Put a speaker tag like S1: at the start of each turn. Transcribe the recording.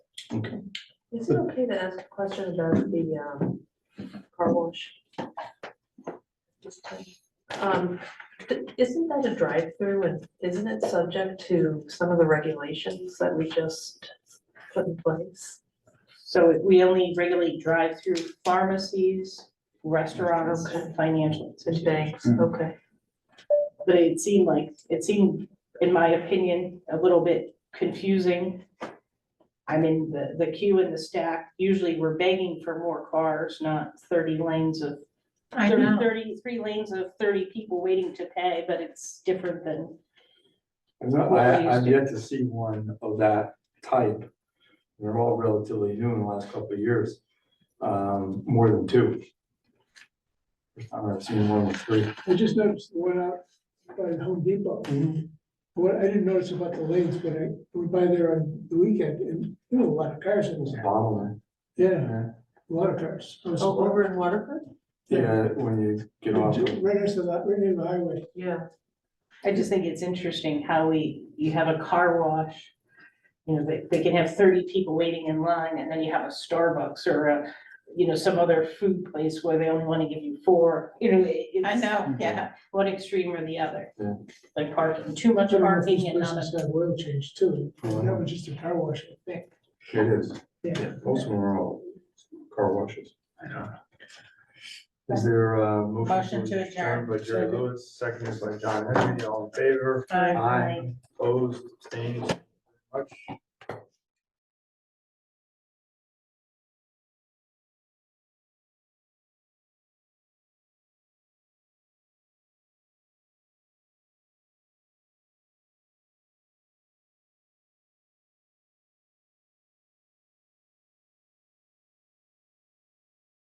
S1: Okay.
S2: Is it okay to ask a question about the um, car wash? Just to- um, th- Isn't that a drive-through and isn't it subject to some of the regulations that we just put in place?
S3: So we only regulate drive-through pharmacies, restaurants, and financial
S2: And
S3: institutions.
S2: banks,
S1: Mhm.
S2: okay,
S3: But it seemed like, it seemed, in my opinion, a little bit confusing. I mean, the, the queue and the stack, usually we're begging for more cars, not thirty lanes of,
S4: I
S3: thirty-
S4: know.
S3: thirty-three lanes of thirty people waiting to pay, but it's different than,
S1: No,
S3: What we
S1: I,
S3: used
S1: I've
S3: to-
S1: yet to see one of that type. They're all relatively new in the last couple of years, um, more than two. First time I've seen one with three.
S5: I just noticed the one out by Home Depot. What I didn't notice about the lanes, but I went by there on the weekend and there were a lot of cars in
S1: It's a
S5: there.
S1: bottleneck.
S5: Yeah, a lot of cars. I was
S2: oh, over in Waterford?
S1: Yeah, when you get off. of-
S5: Right next to that, right near the highway.
S2: Yeah,
S3: I just think it's interesting how we, you have a car wash. You know, they, they can have thirty people waiting in line, and then you have a Starbucks or a, you know, some other food place where they only wanna give you four, you know, it- it's.
S4: I know, yeah.
S3: One extreme or the other.
S1: Yeah.
S3: Like parking, too much
S5: Some of
S3: parking
S5: these
S3: and not enough.
S5: places have oil change too.
S1: Oh,
S5: That was just a car wash, I think.
S1: It is.
S5: Yeah.
S1: Most of them are all car washes. Is there a motion?
S4: Motion to adjourn.
S1: By Jerry Lewis, seconded by John Henry, all in favor?
S4: Aye.
S1: Aye. Opposed, abstained, much.